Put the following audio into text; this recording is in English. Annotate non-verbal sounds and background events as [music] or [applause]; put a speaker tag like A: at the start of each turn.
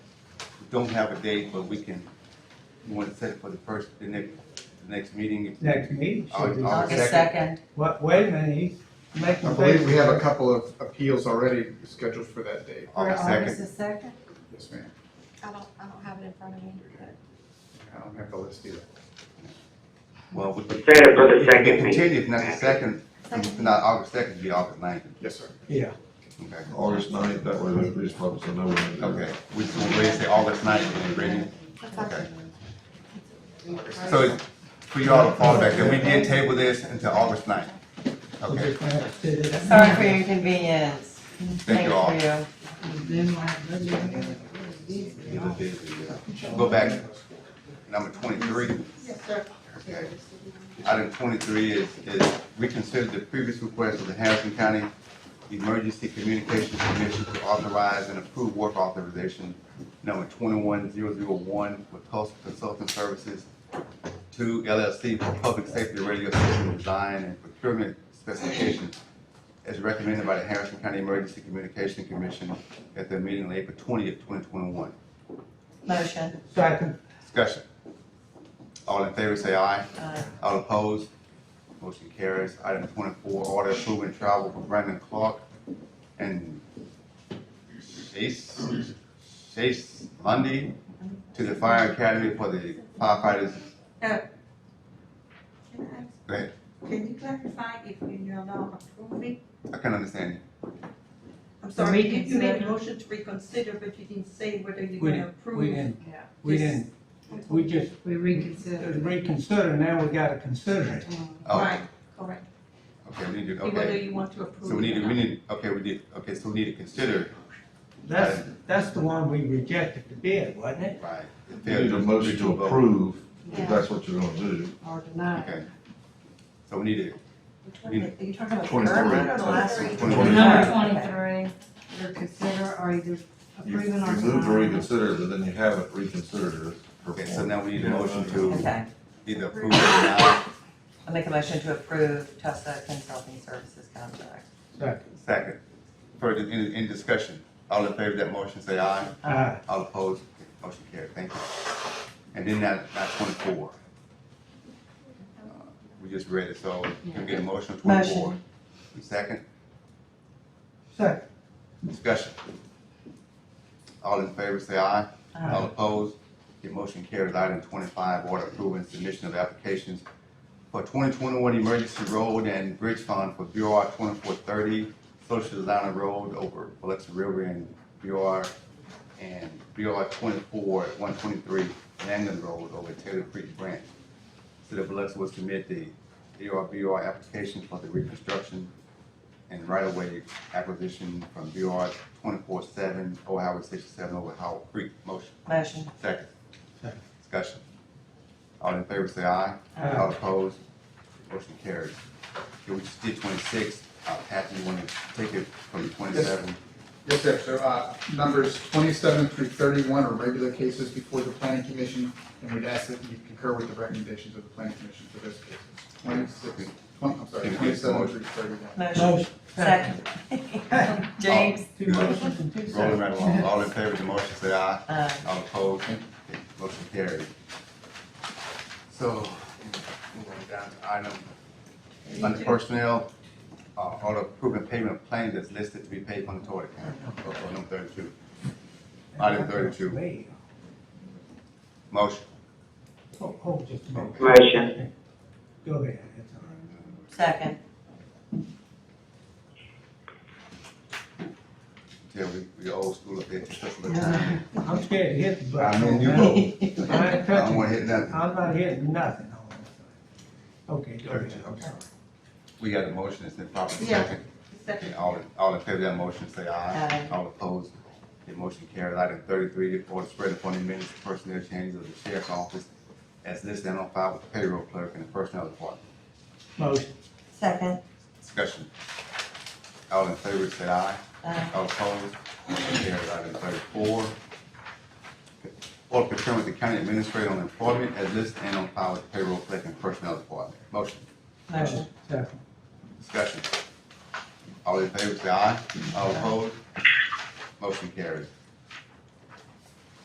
A: don't have a date, but we can, you want to set it for the first, the next, the next meeting?
B: next meeting. should
A: Aug-
B: be-
A: Aug-
C: August
A: second.
C: second,
B: What, wait a minute, he's making.
D: I believe we have a couple of appeals already scheduled for that date.
C: for
A: August
C: August
A: second?
C: the second?
D: Yes, ma'am.
E: I don't, I don't have it in front of me.
D: I don't have the list either.
A: Well, we can.
F: Set it for the
A: we
F: second
A: can
F: meeting.
A: Continue, if not the second, if
E: Second.
A: not August second, it'd be August ninth.
D: Yes, sir.
B: Yeah,
A: Okay,
G: August ninth, that way the police department's will know when to do it.
A: okay, we just gonna raise it August ninth, and bring it.
E: That's fine.
A: Okay. So it's for y'all to fall back, and we did table this until August ninth.
B: we're
A: Okay,
B: just gonna have to sit it out.
C: Sorry for your inconvenience.
A: thank you all.
C: Thanks for you.
A: Go back, number twenty-three.
E: Yes, sir.
A: Okay. Item twenty-three is, is reconsider the previous request of the Harrison County Emergency Communications Commission to authorize and approve work authorization number twenty-one zero zero one with Coastal Consulting Services to LLC for public safety radio system design and procurement specifications as recommended by the Harrison County Emergency Communication Commission at their meeting on April twentieth, twenty twenty-one.
C: Motion.
B: Second,
A: Discussion. All in favor, say aye.
H: Uh,
C: Aye.
A: All opposed? Motion carries. Item twenty-four, order approving travel for Brandon Clark and Chase, Chase Lundy to the Fire Academy for the firefighters.
H: Can I ask,
A: Go ahead.
H: can you clarify if you're not approving?
A: I can understand you.
H: I'm sorry, you- you made
C: reconsider.
H: a motion to reconsider, but you didn't say whether you're
B: We-
H: gonna
B: we
H: approve.
B: didn't, we didn't, we just
C: We reconsider.
B: reconsider, now we gotta consider it.
A: Oh,
H: Right, correct.
A: Okay, we need to,
H: Whether
A: okay.
H: you want to approve.
A: So we
H: it
A: need
H: or
A: to, we
H: not.
A: need, okay, we did, okay, so we need to consider,
B: That's, that's the one we rejected the bid, wasn't it?
A: right?
G: You need a motion to approve, if that's what you're gonna do.
C: Or deny.
A: Okay. So we need to
C: Which one Are you talking about the
G: 23.
C: current one or the last one?
A: 23.
C: Number
E: twenty-three, or consider, or either
G: You, you moved to reconsider, but then you haven't reconsidered it.
A: Okay, so now we need a motion to
C: Okay.
A: either approve or deny.
C: I make a motion to approve Tussa Consulting Services contract.
B: Second,
A: Second. Further, in, in discussion, all in favor of that motion, say aye.
B: uh,
A: All opposed, motion carried, thank you. And then that, that twenty-four. Uh, We just read it, so you get a motion on twenty-four.
C: Motion.
A: Second,
B: second,
A: discussion. All in favor, say aye. All opposed, your motion carries. Item twenty-five, order approving submission of applications for twenty twenty-one emergency road and bridge fund for BR twenty-four thirty, social design road over Biloxi River and BR and BR twenty-four, one twenty-three Langland Road over Taylor Creek Branch. City of Biloxi will submit the DRBR application for the reconstruction and right-of-way acquisition from BR twenty-four seven, Ohio Highway sixty-seven over Howard Creek. Motion.
C: Motion.
A: Second.
B: Second.
A: Discussion. All in favor say aye.
B: Aye.
A: All opposed, motion carries. Okay, we just did twenty-six, uh, Pat, you wanna take it from twenty-seven?
D: Yes, sir. So, uh, numbers twenty-seven through thirty-one are regular cases before the planning commission, and we'd ask that you concur with the recommendations of the planning commission for those cases. Twenty-six, twenty, I'm sorry, twenty-seven through thirty-one.
C: Motion.
B: motion, [laughs] second,
C: Second.
A: Oh.
C: James.
B: two motions and two
A: Rolling
B: seconds.
A: right along, all in favor of the motion say aye.
C: Aye.
A: All opposed, Okay, motion carries. So, moving down to item, under personnel, uh, order approving payment of claims that's listed to be paid from the tort account, Okay, number thirty-two. Item thirty-two,
B: Wait,
A: motion.
B: Hold, hold just a minute,
F: Motion.
B: go ahead, that's all right.
C: Second.
A: Yeah, we, we old school up there, just a little time.
B: I'm scared to hit the
A: I
B: button.
A: mean, you
B: man.
A: vote.
B: I
A: I
B: ain't
A: don't
B: touching
A: wanna hit
B: it.
A: nothing.
B: I'm not hitting nothing on this thing. Okay, go
A: Okay,
B: ahead.
A: I'm sorry. We got a motion, it's been properly
H: Yeah.
A: second.
H: Second.
A: All, in- all in favor of that motion, say aye.
C: Aye.
A: All opposed, the motion carries. Item thirty-three, order spread upon the minutes, of personnel changes of the sheriff's office as listed and on file with the payroll clerk and the personnel department.
B: Motion,
C: Second.
A: Discussion. All in favor, say aye.
C: Aye.
A: All opposed, motion carries. Item thirty-four, order procurement the county administrator on employment as listed and on file with the payroll clerk and personnel department. Motion.
C: Motion.
B: second,
A: Discussion. All in favor, say aye. All opposed? Motion carries.